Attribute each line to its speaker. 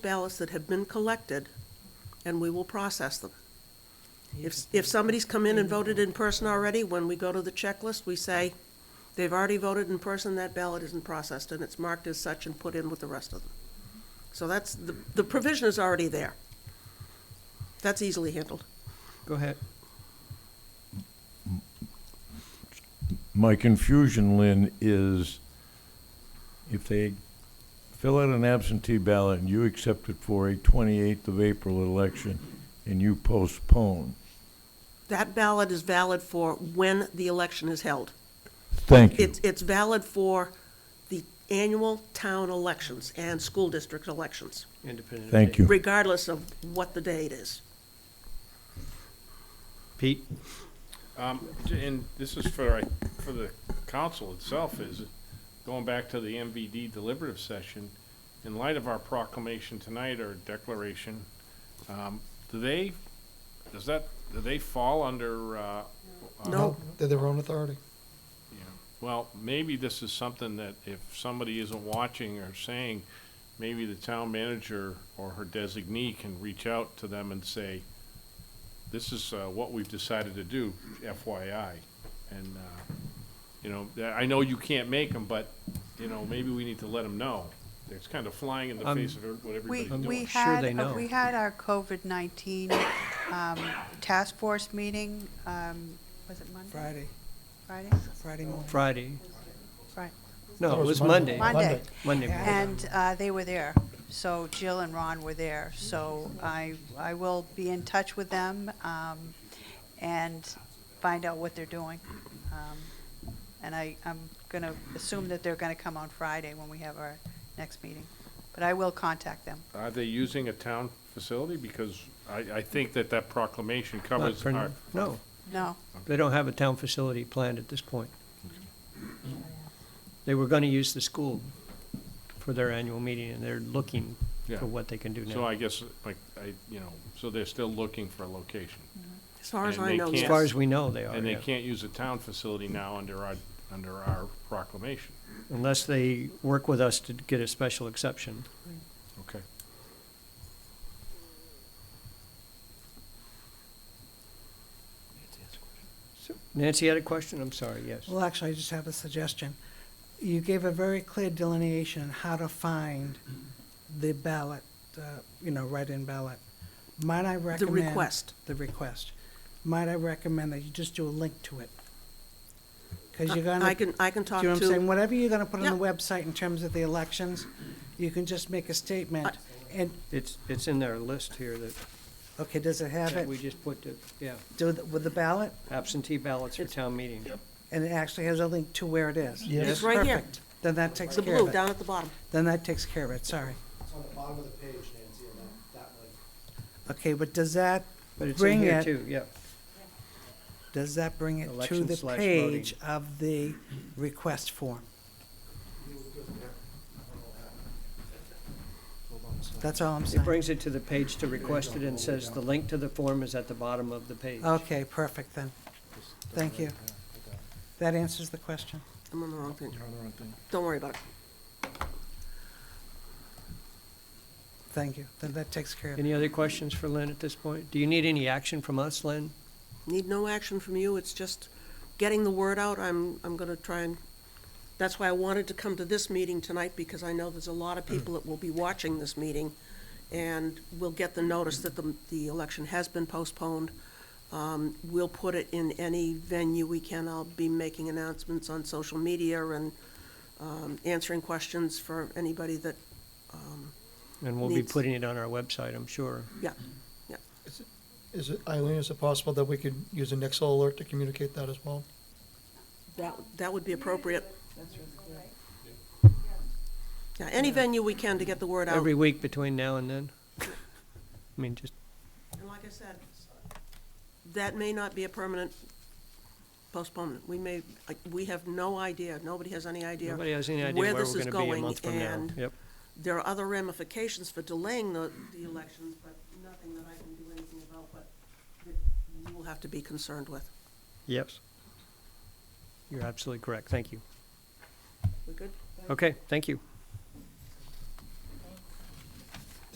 Speaker 1: ballots that have been collected, and we will process them. If, if somebody's come in and voted in person already, when we go to the checklist, we say, they've already voted in person, that ballot isn't processed, and it's marked as such and put in with the rest of them. So that's, the, the provision is already there. That's easily handled.
Speaker 2: Go ahead.
Speaker 3: My confusion, Lynn, is if they fill out an absentee ballot and you accept it for a 28th of April election and you postpone,
Speaker 1: That ballot is valid for when the election is held.
Speaker 3: thank you.
Speaker 1: It's, it's valid for the annual town elections and school district elections,
Speaker 2: Independent.
Speaker 3: Thank you.
Speaker 1: regardless of what the date is.
Speaker 2: Pete?
Speaker 4: Um, and this is for, for the council itself, is going back to the MVD deliberative session, in light of our proclamation tonight or declaration, um, do they, does that, do they fall under, uh? uh,
Speaker 1: No.
Speaker 5: They're their own authority.
Speaker 4: yeah. Well, maybe this is something that if somebody isn't watching or saying, maybe the town manager or her designee can reach out to them and say, this is uh, what we've decided to do, FYI. And, uh, you know, th- I know you can't make them, but, you know, maybe we need to let them know. It's kind of flying in the
Speaker 2: Um,
Speaker 4: face of every- what
Speaker 6: We,
Speaker 4: everybody's
Speaker 6: we
Speaker 4: doing.
Speaker 2: sure
Speaker 6: had,
Speaker 2: they know.
Speaker 6: uh, we had our COVID-19 um, task force meeting, um, was it Monday?
Speaker 7: Friday,
Speaker 6: Friday?
Speaker 7: Friday morning.
Speaker 2: Friday?
Speaker 6: Fri-
Speaker 2: No, it was Monday.
Speaker 6: Monday.
Speaker 2: Monday. morning.
Speaker 6: And uh, they were there. So Jill and Ron were there. So I, I will be in touch with them um, and find out what they're doing. Um, And I, I'm going to assume that they're going to come on Friday when we have our next meeting. But I will contact them.
Speaker 4: Are they using a town facility? Because I, I think that that proclamation
Speaker 2: Not
Speaker 4: covers
Speaker 2: for-
Speaker 4: our,
Speaker 2: No,
Speaker 6: No,
Speaker 2: they don't have a town facility planned at this point. They were gonna use the school for their annual meeting, and they're looking
Speaker 4: yeah.
Speaker 2: for what they can do
Speaker 4: So
Speaker 2: now.
Speaker 4: I guess, like, I, you know, so they're still looking for a location.
Speaker 1: As far as
Speaker 4: And
Speaker 1: I
Speaker 4: they
Speaker 1: know,
Speaker 4: can't-
Speaker 2: As far as
Speaker 1: yes.
Speaker 2: we know, they are,
Speaker 4: And they
Speaker 2: yeah.
Speaker 4: can't use a town facility now under our, under our proclamation.
Speaker 2: unless they work with us to get a special exception.
Speaker 4: Okay.
Speaker 2: Nancy had a question, I'm sorry, yes.
Speaker 7: Well, actually, I just have a suggestion. You gave a very clear delineation on how to find the ballot, uh, you know, write-in ballot. Might I
Speaker 1: The
Speaker 7: recommend?
Speaker 1: request.
Speaker 7: The request. Might I recommend that you just do a link to it? Because you're gonna,
Speaker 1: I
Speaker 7: do
Speaker 1: can, I can talk
Speaker 7: you know what I'm saying?
Speaker 1: to,
Speaker 7: Whatever you're gonna put on the website in terms of the elections, you can just make a statement. And,
Speaker 2: It's, it's in their list here that,
Speaker 7: okay, does it have
Speaker 2: that we
Speaker 7: it,
Speaker 2: just put, to- yeah,
Speaker 7: do, the- with the ballot?
Speaker 2: absentee ballots for town meeting.
Speaker 7: And it actually has a link to where it is?
Speaker 5: Yes.
Speaker 1: It's right here.
Speaker 7: Perfect. Then that takes
Speaker 1: the
Speaker 7: care of
Speaker 1: blue
Speaker 7: it.
Speaker 1: down at the bottom.
Speaker 7: Then that takes care of it, sorry.
Speaker 8: It's on the bottom of the page, Nancy, and that, that link.
Speaker 7: Okay, but does that,
Speaker 2: But it's in
Speaker 7: Bring
Speaker 2: here
Speaker 7: it.
Speaker 2: too, yeah.
Speaker 7: does that bring it to
Speaker 2: Election
Speaker 7: the
Speaker 2: slash
Speaker 7: page of the request form? That's all I'm
Speaker 2: It
Speaker 7: saying.
Speaker 2: brings it to the page to request it and says the link to the form is at the bottom of the page.
Speaker 7: Okay, perfect then. Thank you. That answers the question.
Speaker 1: I'm on the wrong thing. Don't worry about it.
Speaker 7: Thank you. Then that takes care of it.
Speaker 2: Any other questions for Lynn at this point? Do you need any action from us, Lynn?
Speaker 1: Need no action from you, it's just getting the word out. I'm, I'm gonna try and, that's why I wanted to come to this meeting tonight, because I know there's a lot of people that will be watching this meeting, and will get the notice that the, the election has been postponed. Um, we'll put it in any venue we can. I'll be making announcements on social media and, um, answering questions for anybody that,
Speaker 2: And we'll be
Speaker 1: Needs-
Speaker 2: putting it on our website, I'm sure.
Speaker 1: yeah,
Speaker 5: Is it, Eileen, is it possible that we could use an Excel alert to communicate that as well?
Speaker 1: That, that would be appropriate. Yeah, any venue we can to get the word out.
Speaker 2: Every week between now and then? I mean, just,
Speaker 1: And like I said, that may not be a permanent postponement. We may, like, we have no idea, nobody has any idea.
Speaker 2: nobody has any idea
Speaker 1: where
Speaker 2: where we're
Speaker 1: this is
Speaker 2: gonna be a
Speaker 1: going
Speaker 2: month from now.
Speaker 1: and-
Speaker 2: Yep.
Speaker 1: There are other ramifications for delaying the, the elections, but nothing that I can do anything about, but that you will have to be concerned with.
Speaker 2: Yes. You're absolutely correct. Thank you.
Speaker 1: We good?
Speaker 2: Okay, thank you.